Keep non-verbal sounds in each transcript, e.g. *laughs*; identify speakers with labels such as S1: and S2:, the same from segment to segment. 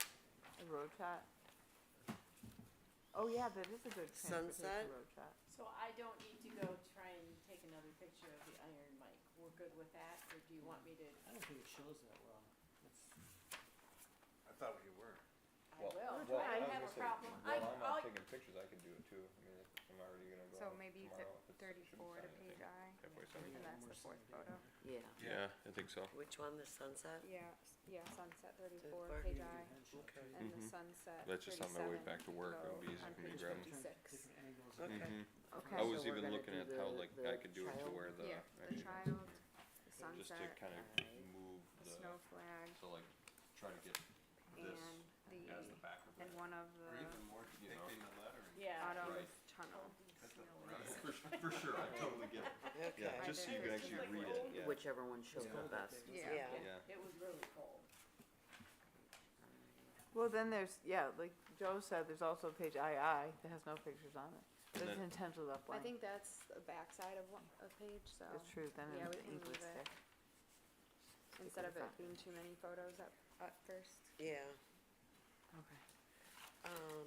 S1: the road chart? Oh, yeah, that is a good
S2: Sunset?
S1: transportation road chart.
S3: So I don't need to go try and take another picture of the iron mic. We're good with that, or do you want me to?
S4: I don't think it shows that well. It's-
S5: I thought you were.
S3: I will.
S6: Well, well,
S3: I
S6: was
S3: don't have
S6: gonna
S3: a
S6: say,
S3: problem. I,
S6: While I'm
S3: I'll,
S6: not taking pictures, I can do it too, I mean, if I'm already gonna go
S7: So
S6: out
S7: maybe
S6: tomorrow,
S7: th-
S6: if it's-
S7: thirty-four to
S6: shouldn't be
S7: page
S6: signed,
S7: I,
S6: I think. Halfway signed.
S4: yeah,
S7: that's the
S4: we're seeing
S7: fourth
S4: it, yeah.
S7: photo.
S1: Yeah.
S5: Yeah.
S6: Yeah, I think so.
S2: Which one, the sunset?
S7: yeah, s- yeah, sunset thirty-four,
S2: Thirty-four.
S7: page
S4: Here's
S7: I,
S4: your headshot,
S2: Okay.
S7: and the
S6: Mhm.
S7: sunset
S6: That's just on my way
S7: 37
S6: back to work, it
S7: go
S6: would be easier
S7: on
S6: for me to
S7: page
S6: grab 'em.
S7: fifty-six.
S4: Different angles.
S5: Hmm.
S2: Okay.
S6: Mhm.
S1: Okay.
S6: I
S1: So
S6: was
S1: we're
S6: even
S1: gonna
S6: looking
S1: do
S6: at how
S1: the-
S6: like
S1: the
S6: I could do it to
S1: child-
S6: where the,
S7: Yeah, the
S6: actually,
S7: child, the
S6: just to
S7: sunset,
S6: kinda
S1: alright.
S6: move
S7: the
S6: the,
S7: snow flag,
S6: to like, try to get this
S7: and the,
S6: as the back of
S7: and
S6: it,
S7: one of
S5: Or
S7: the
S5: even more
S6: You know.
S5: depicting the lettering.
S3: yeah.
S7: autumn's
S6: Right.
S7: tunnel.
S5: That's the-
S6: Oh, for, su- for *laughs* sure, I totally get it, yeah,
S2: Okay.
S6: just so you can
S7: there.
S6: actually
S3: Like
S6: read it,
S3: old-
S6: yeah,
S1: Whichever one shows
S4: Yeah.
S1: the best.
S2: Yeah.
S6: yeah.
S3: It was really cold.
S1: Well, then there's, yeah, like Joe said, there's also page II that has no pictures on it.
S6: And
S1: It's
S6: then-
S1: intentionally left
S7: I
S1: blank.
S7: think that's the backside of one, a page, so
S1: It's true, then
S7: Yeah,
S1: it
S7: we can
S1: ink would
S7: leave it.
S1: stick.
S7: instead of it
S1: front.
S7: being too many photos at, at first.
S2: Yeah,
S1: Okay.
S2: um,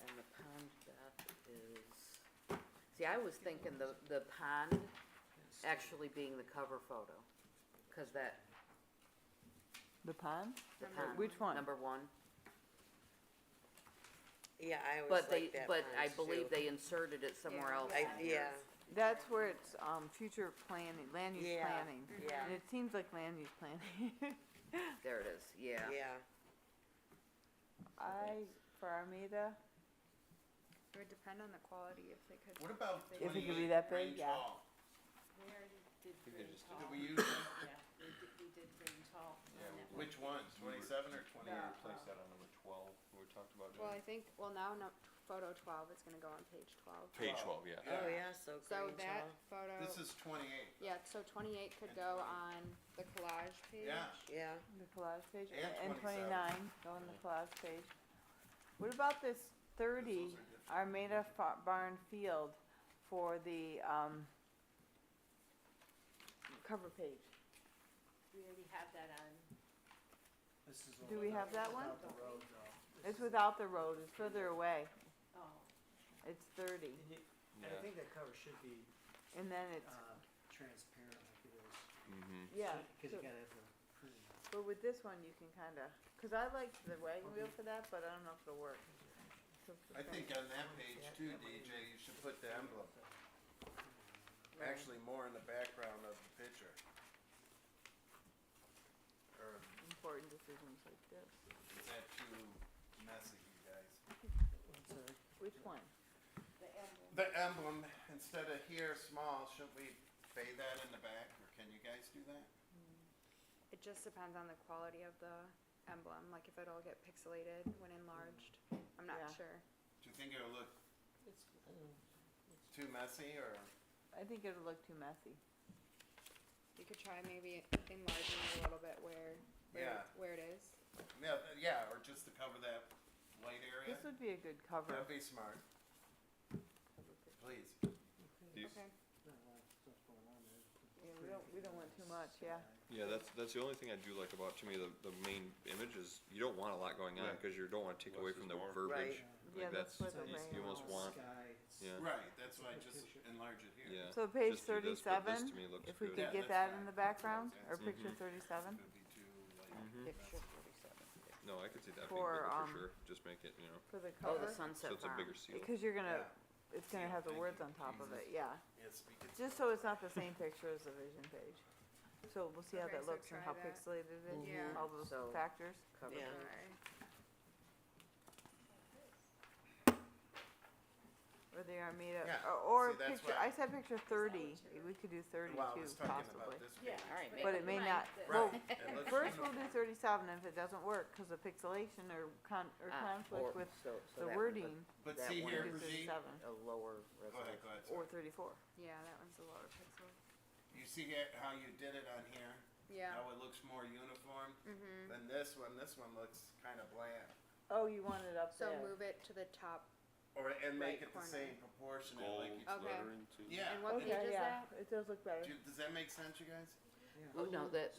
S1: And the pond bath is, see, I was thinking the, the pond actually being the cover photo, cause that. The pond? The
S7: Number
S1: pond.
S7: Which
S1: one? Number one,
S2: yeah, I always
S1: but they,
S2: like that
S1: but I
S2: punch,
S1: believe
S2: too.
S1: they inserted it somewhere
S7: Yeah.
S1: else.
S2: I, yeah,
S8: That's where it's, um, future planning, land use
S2: Yeah,
S8: planning.
S2: yeah.
S8: And it seems like land use planning. *laughs*
S1: There it is, yeah.
S2: yeah,
S8: I, for Armida,
S7: It would depend on the quality if they could.
S5: What about
S7: if they-
S8: If it could be
S5: twenty-eight
S8: that big,
S5: range
S8: yeah.
S5: hall?
S3: We already did
S6: they
S3: green
S6: just did
S3: tall.
S5: Did we use that?
S3: Yeah, we did, we did green tall.
S6: Yeah,
S3: on that
S6: we did.
S3: one.
S5: Which ones, twenty-seven or
S6: Maybe
S3: Yeah.
S5: twenty-eight?
S6: replace that on number twelve, we talked about
S7: Well, I
S6: doing.
S7: think, well, now, no, photo twelve, it's gonna go on page twelve.
S6: Page
S5: Twelve.
S6: twelve, yeah,
S2: oh, yeah, so
S7: So
S2: green
S7: that
S2: channel,
S7: photo,
S5: This is twenty-eight,
S7: yeah, so twenty-eight could
S5: And
S7: go
S5: 20.
S7: on the collage page.
S5: yeah.
S2: yeah,
S8: the collage page,
S5: And
S8: and
S5: 27.
S8: twenty-nine, go on the collage page. What about this thirty
S5: Those are different.
S8: Armida fa- barn field for the, um, cover page?
S3: We already have that on.
S4: This is
S8: Do
S4: all
S8: we
S4: about-
S8: have that one?
S4: about the road, though. This
S8: It's
S4: is-
S8: without the road, it's further away,
S3: Oh,
S8: it's thirty,
S4: And you- and I
S6: yeah,
S4: think that cover should be,
S8: and then it's,
S4: uh, transparent like it is.
S6: mhm,
S8: yeah.
S4: Cause
S8: so-
S4: you gotta have the printing.
S8: But with this one, you can kinda, cause I liked the wagon wheel for that, but I don't know if it'll work. So-
S5: I think on that page too, DJ, you should put the emblem, actually more in the background of the picture. Or
S8: Important decisions like this.
S5: is that too messy, you guys?
S4: I'm sorry.
S8: Which one?
S3: the emblem.
S5: The emblem, instead of here, small, shouldn't we fade that in the back, or can you guys do that?
S7: It just depends on the quality of the emblem, like if it'll get pixelated when enlarged, I'm not
S8: Yeah.
S7: sure.
S5: Do you think it'll look
S2: It's, mm,
S5: too messy, or?
S8: I think it'll look too messy.
S7: You could try maybe enlarging it a little bit where, where,
S5: Yeah.
S7: where it is.
S5: Yeah, th- yeah, or just to cover that white area?
S8: This would be a good cover.
S5: That'd be smart. Please.
S6: these,
S7: Okay.
S4: Not a lot of stuff going on there.
S8: Yeah, we don't, we don't want too much, yeah.
S6: yeah, that's, that's the only thing I do like about, to me, the, the main image is, you don't want a lot going on,
S5: Right.
S6: cause you don't wanna take
S9: Less
S6: away
S9: is
S6: from the
S9: more.
S2: Right.
S6: verbiage,
S8: Yeah,
S6: like
S8: that's what
S6: that's,
S8: the
S6: you s- you
S8: rain
S6: almost
S8: was.
S6: want,
S4: Sky, it's-
S6: yeah.
S5: Right, that's why I just
S4: Picture.
S5: enlarge it here.
S6: yeah.
S8: So page
S6: Just do this, but this
S8: thirty-seven,
S6: to me looks
S8: if we
S6: good.
S8: could
S5: Yeah,
S8: get
S5: that's
S8: that in
S5: fine.
S8: the background, or
S5: Mhm.
S8: picture thirty-seven,
S5: Could be too, like,
S8: Mm-hmm.
S6: Mhm.
S1: Picture
S5: messy.
S1: forty-seven.
S6: No, I could see that being
S8: For,
S6: bigger
S8: um,
S6: for sure, just make it, you know,
S8: for the
S1: Oh,
S8: cover.
S1: the sunset
S6: so it's a
S1: farm.
S6: bigger seal.
S8: Cause you're gonna, it's gonna
S5: Yeah,
S8: have the
S5: thank
S8: words
S5: you,
S8: on top of it,
S5: Jesus.
S8: yeah.
S5: Yeah, speak it.
S8: Just so it's not the
S5: *laughs*
S8: same picture as the vision page. So we'll see how
S7: Okay,
S8: that
S7: so
S8: looks
S7: try
S8: and how
S7: that. Mm-hmm.
S8: pixelated it is,
S7: Yeah.
S8: all those
S1: So-
S8: factors.
S1: Cover
S2: Yeah.
S7: Try.
S8: Or the Armida,
S5: Yeah,
S8: or, or
S5: see, that's
S8: picture,
S5: why-
S8: I said picture thirty,
S3: you're-
S8: we could do thirty-two
S5: Well, I was talking
S8: possibly.
S5: about this
S3: Yeah,
S5: page.
S1: Alright,
S3: but
S8: But it may
S3: mine
S8: not,
S3: says-
S8: well,
S5: Right, it looks
S8: first we'll do
S5: beautiful.
S8: thirty-seven, if it doesn't work, cause of pixelation or con, or
S1: Ah,
S8: conflict
S1: or-
S8: with
S1: so- so
S8: the
S1: that would look
S8: wording,
S5: But
S1: that
S5: see
S1: one.
S5: here,
S8: do
S5: Brigitte,
S8: thirty-seven,
S1: A lower
S5: go ahead, go
S1: resolution.
S5: ahead,
S8: or
S5: sorry.
S8: thirty-four.
S7: Yeah, that one's a lower pixel.
S5: You see here how you did it on here,
S7: Yeah.
S5: how it looks more uniform
S7: Mm-hmm.
S5: than this one, this one looks kinda bland.
S8: Oh, you want it up
S7: So
S8: there?
S7: move it to the top.
S5: Or, and make
S7: Right
S5: it the
S7: corner.
S5: same proportionate,
S9: Gold
S5: like you,
S7: Okay.
S9: lettering too.
S5: yeah.
S7: And what
S8: Okay,
S7: page is
S8: yeah,
S7: that?
S8: It does look better.
S5: Do- Does that make sense, you guys?
S4: Yeah.
S1: Oh, no, that,